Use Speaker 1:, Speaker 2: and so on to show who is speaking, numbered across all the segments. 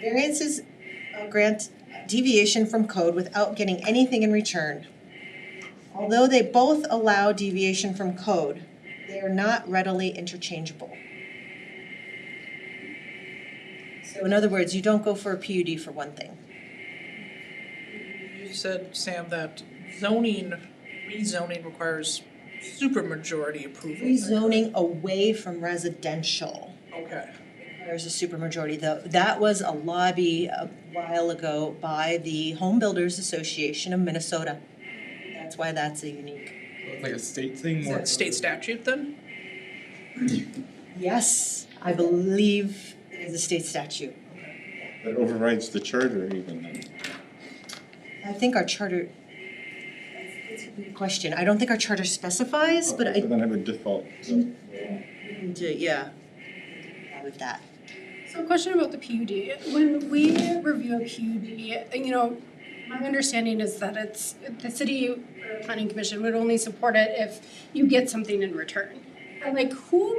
Speaker 1: Variances uh, grant deviation from code without getting anything in return. Although they both allow deviation from code, they are not readily interchangeable. So in other words, you don't go for a PUD for one thing.
Speaker 2: You said, Sam, that zoning, rezoning requires supermajority approval.
Speaker 1: Rezoning away from residential
Speaker 2: Okay,
Speaker 1: requires a supermajority, though. That was a lobby a while ago by the Home Builders Association of Minnesota. That's why that's a unique.
Speaker 3: It's Like a state thing
Speaker 2: is
Speaker 3: more.
Speaker 2: that state statute then?
Speaker 1: Yes, I believe it is a state statute.
Speaker 4: That overrides the charter even then.
Speaker 1: I think our charter, that's a good question. I don't think our charter specifies, but I,
Speaker 4: Then have a default, so.
Speaker 1: yeah. With that.
Speaker 5: So a question about the PUD. When we review a PUD, you know, my understanding is that it's, the city or planning commission would only support it if you get something in return. And like who,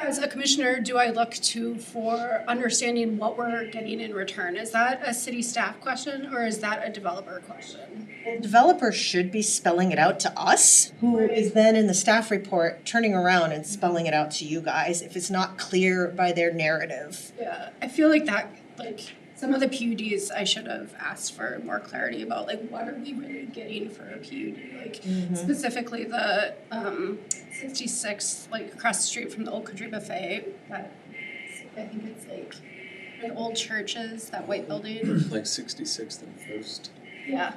Speaker 5: as a commissioner, do I look to for understanding what we're getting in return? Is that a city staff question or is that a developer question?
Speaker 1: The Developer should be spelling it out to us, who is then in the staff report turning around and spelling it out to you guys if it's not clear by their narrative.
Speaker 5: Yeah, I feel like that, like, some of the PUDs I should have asked for more clarity about, like, what are we really getting for a PUD? Like, specifically the, um, sixty-six, like, across the street from the Old Country Buffet, that, I think it's like, the old churches, that white building,
Speaker 6: like 66th and First.
Speaker 5: yeah.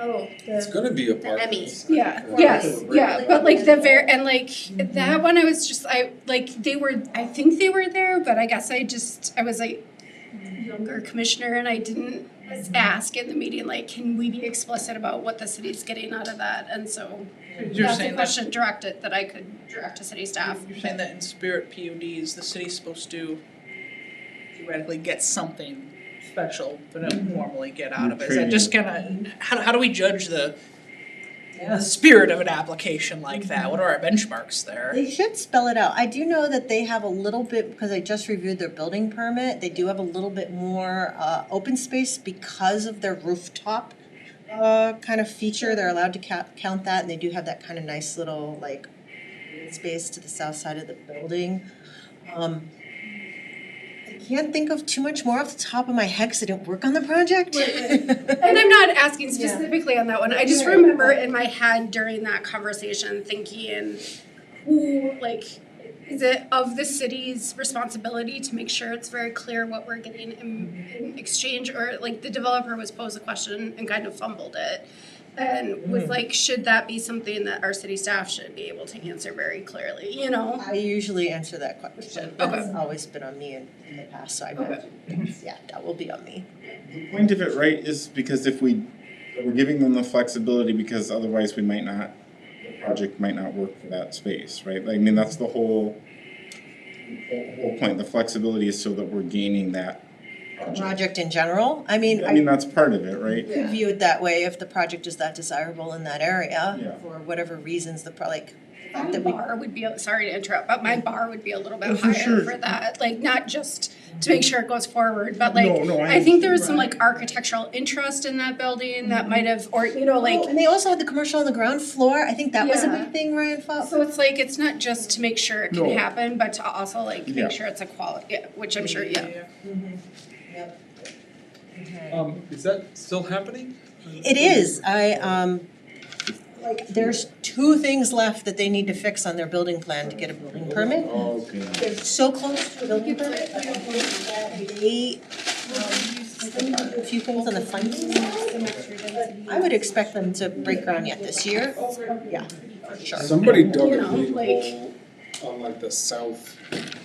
Speaker 5: Oh,
Speaker 6: It's gonna be apartments.
Speaker 5: yeah,
Speaker 6: Or-
Speaker 5: yes,
Speaker 6: or-
Speaker 5: yeah, but like the ver- and like that one, I was just I like they were I think they were there, but I guess I just I was like younger commissioner and I didn't ask in the meeting like can we be explicit about what the city's getting out of that and so
Speaker 2: You're
Speaker 5: that's a
Speaker 2: saying that,
Speaker 5: question directed that I could direct to city staff.
Speaker 2: you're saying that in spirit PUDs, the city's supposed to theoretically get something special, but don't formally get out of it. Is that just kinda, how, how do we judge the the spirit of an application like that? What are our benchmarks there?
Speaker 1: They should spell it out. I do know that they have a little bit, because I just reviewed their building permit, they do have a little bit more uh open space because of their rooftop uh kind of feature. They're allowed to count count that and they do have that kind of nice little like green space to the south side of the building. Um I can't think of too much more off the top of my head because I didn't work on the project.
Speaker 5: And I'm not asking specifically on that one. I just
Speaker 1: Right.
Speaker 5: remember in my head during that conversation thinking, who, like, is it of the city's responsibility to make sure it's very clear what we're getting in, in exchange? Or, like, the developer was posed a question and kind of fumbled it. And
Speaker 4: Hmm.
Speaker 5: was like, should that be something that our city staff should be able to answer very clearly, you know?
Speaker 1: I usually answer that question.
Speaker 5: Okay.
Speaker 1: That's always been on me in, in the past, so I imagine, yeah, that will be on me.
Speaker 4: The point of it, right, is because if we, we're giving them the flexibility because otherwise we might not, the project might not work for that space, right? Like, I mean, that's the whole, whole whole point, the flexibility is so that we're gaining that project.
Speaker 1: Project in general, I mean,
Speaker 4: I mean,
Speaker 1: I
Speaker 4: that's part of it, right?
Speaker 1: could view it that way if the project is that desirable in that
Speaker 4: Yeah.
Speaker 1: area, for whatever reasons, the, pro- like,
Speaker 5: My
Speaker 1: that we-
Speaker 5: bar would be, sorry to interrupt, but my bar would be a little
Speaker 4: Oh,
Speaker 5: bit
Speaker 4: for
Speaker 5: higher
Speaker 4: sure.
Speaker 5: for that, like not just to make sure it goes forward, but
Speaker 4: No,
Speaker 5: like,
Speaker 4: no, I
Speaker 5: I think there was some like architectural interest in that building that might have, or you know,
Speaker 1: Oh,
Speaker 5: like,
Speaker 1: and they also had the commercial on the ground floor, I think that was a
Speaker 5: Yeah.
Speaker 1: big thing Ryan fought
Speaker 5: so it's like, it's not just to make sure it can
Speaker 4: No.
Speaker 5: happen, but to also like
Speaker 4: Yeah.
Speaker 5: make sure it's a quality, which I'm sure, yeah.
Speaker 6: Um, is that still happening?
Speaker 1: It is, I, um, like, there's two things left that they need to fix on their building plan to get a building permit.
Speaker 6: Oh, okay.
Speaker 1: They're so close to a building permit. They, um, a few things on the funding. I would expect them to break ground yet this year. Yeah, for sure.
Speaker 7: Somebody dug
Speaker 5: You
Speaker 7: a
Speaker 5: know,
Speaker 7: big
Speaker 5: like-
Speaker 7: hole on like the south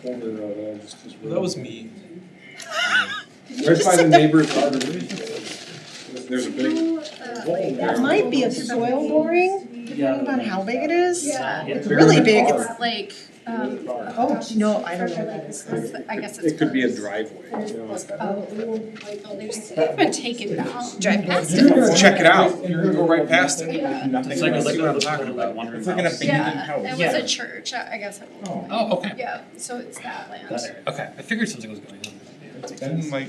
Speaker 7: corner of uh, just this
Speaker 6: Well, that was me.
Speaker 7: Right by the neighbor's garden. There's a big hole
Speaker 1: That
Speaker 7: there.
Speaker 1: might be a soil boring, depending on how big it is.
Speaker 5: Yeah.
Speaker 1: It's really big, it's,
Speaker 5: It's like, um.
Speaker 1: oh, no, I don't know what that is.
Speaker 5: I guess it's.
Speaker 7: It could be a
Speaker 5: closed.
Speaker 7: driveway, you know, it's got-
Speaker 5: oh, They've been taken down.
Speaker 1: Drive past
Speaker 7: You're gonna check it out, you're gonna go right past it.
Speaker 3: It's
Speaker 7: like-
Speaker 3: like
Speaker 7: like
Speaker 3: what I'm talking about.
Speaker 4: It's like an abandoned
Speaker 5: Yeah,
Speaker 4: house.
Speaker 5: it was a church, I I guess. it-
Speaker 4: Oh.
Speaker 3: Oh, okay.
Speaker 5: Yeah, so it's that land.
Speaker 3: Okay, I figured something was going on.
Speaker 4: Then like